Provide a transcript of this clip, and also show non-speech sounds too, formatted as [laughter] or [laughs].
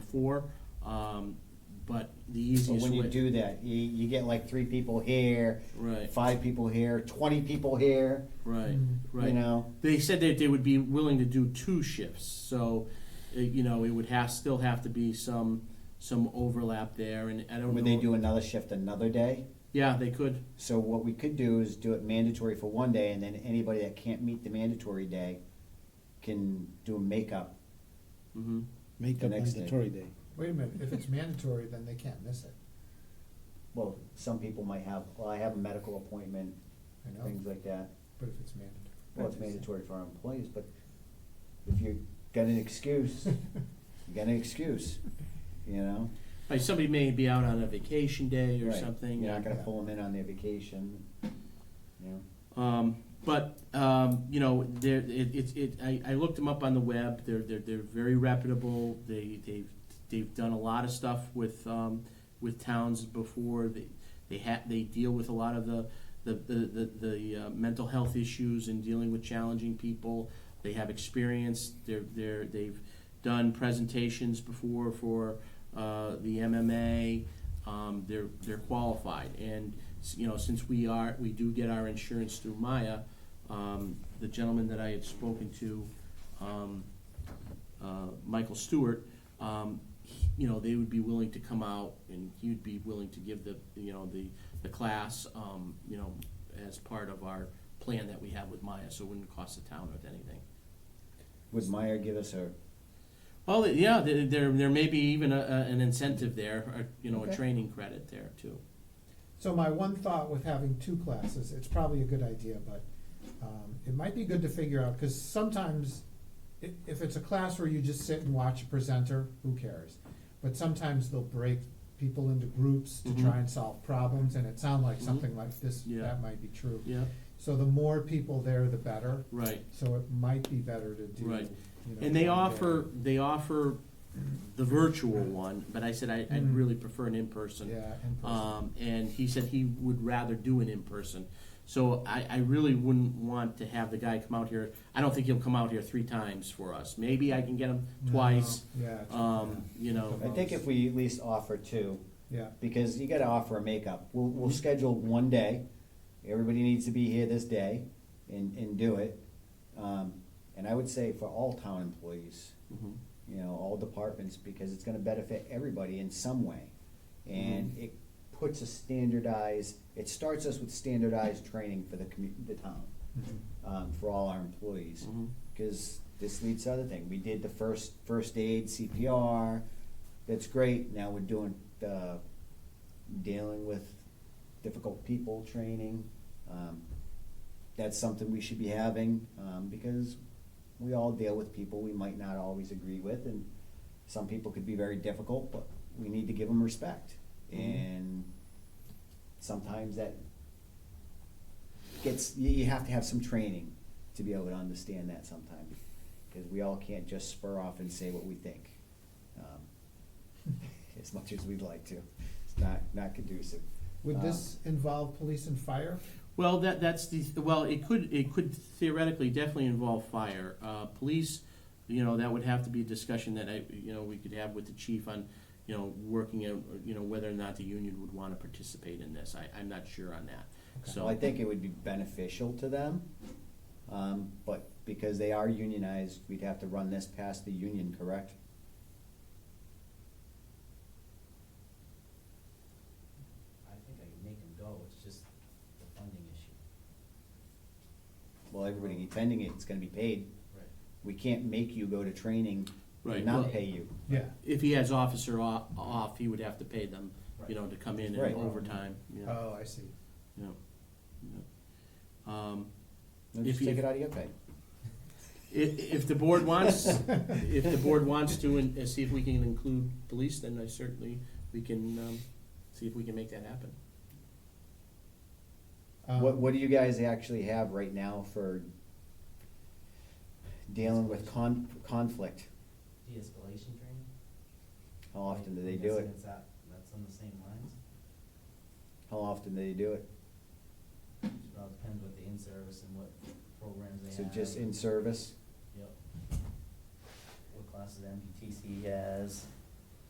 before, um, but the So easiest when you way. do that, you, you get like three people here, Right, five people here, twenty people here, right, right. you know? They said that they would be willing to do two shifts, so, uh, you know, it would have, still have to be some, some overlap there, and I don't know. Would they do another shift another day? Yeah, they could, So what we could do is do it mandatory for one day, and then anybody that can't meet the mandatory day can do a makeup. hmm Make The up next day. mandatory day. Wait a minute, if it's mandatory, then they can't miss it, Well, some people might have, well, I have a medical appointment, I Oh. know, things like that. but if it's mandatory. Well, it's mandatory for our employees, but if you got an [laughs] excuse, you got an excuse, you know? Like, somebody may be out on a vacation day or Right. something. You're not gonna yeah. pull them in on their vacation, you know? Um, but um, you know, there it, it, it I, I looked them up on the web. They're they're, they're very reputable. They they've they've done a lot of stuff with um, with towns before. They they ha- they deal with a lot of the the the, the, the uh, mental health issues and dealing with challenging people. They have experience. They're they're they've done presentations before for uh, the MMA. Um, they're they're qualified, and s- you know since we are we do get our insurance through Maya, um, the gentleman that I had spoken to, um, uh, Michael Stewart, um, he- you know they would be willing to come out, and he'd be willing to give the you know the the class um, you know as part of our plan that we have with Maya, so it wouldn't cost the town or anything. Would Meyer give us a, Well, yeah, there, there, there may be even a, a, an incentive there, or, you know, a Okay. training credit there too. [laughs] So my one thought with having two classes, it's probably a good idea, but, um, it might be good to figure out, cause sometimes i- if it's a class where you just sit and watch a presenter, who cares? But sometimes they'll break people into groups to Mhm. try and solve problems, and it sounded like Mhm. something like this, Yeah. that might be true. Yeah, So the more people there, the better, right. so it might be better to do, you know. Right. And they one day. offer, they offer the virtual one, but I said I, I'd Mm. really prefer an in-person. Yeah, in person. Um, and he said he would rather do an in-person. So I, I really wouldn't want to have the guy come out here. I don't think he'll come out here three times for us. Maybe I can get him No, twice, Yeah. um, you know. I think if we at least offer two, Yeah, because you gotta offer a makeup. We'll, we'll Mm-hmm. schedule one day, everybody needs to be here this day and, and do it. Um, and I would say for all town employees, Mhm. you know, all departments, because it's gonna benefit everybody in some way. Mm-hmm. And it puts a standardized, it starts us with standardized training for the commu- the town, mm-hmm. um, for all our employees. Mhm. Cause this leads to other thing, we did the first, first aid CPR, that's great, now we're doing the dealing with difficult people training. Um, That's something we should be having, um, because we all deal with people we might not always agree with, and some people could be very difficult, but we need to give them respect. And sometimes that gets, you, you have to have some training to be able to understand that sometimes, because we all can't just spur off and say what we think. um, [laughs] As much as we'd like to, it's not, not conducive. would Uh, this involve police and fire? Well, that, that's the, well, it could, it could theoretically definitely involve fire. Uh, police, you know, that would have to be a discussion that I, you know, we could have with the chief on, you know, working out, you know, whether or not the union would wanna participate in this. I, I'm not sure on that, Well, I so, think it would be beneficial to them, um, but because they are unionized, we'd have to run this past the union, correct? I think I can make them go, Oh, it's just the funding issue. Well, everybody attending it, it's gonna be paid. Right. We can't make you go to training Right, and well- not pay you. Yeah. if he has officer off, off, he would have to pay them, you know, to come in Right. Uh, and overtime, you know, Oh, I see. you know. you know. Um, No, If Just you- take it out of your i- pay. if the board wants, if the board wants to and and see if we can include police, then I certainly, we can, um, see if we can make that happen. Um, What, what do you guys actually have right now for dealing with con- conflict? De-escalation training? How often do Like, they I'm do guessing it? it's that- that's on the same lines, How often do they do it? it all depends what the in-service and what programs they So have. just in service? Yep. What classes MPTC has,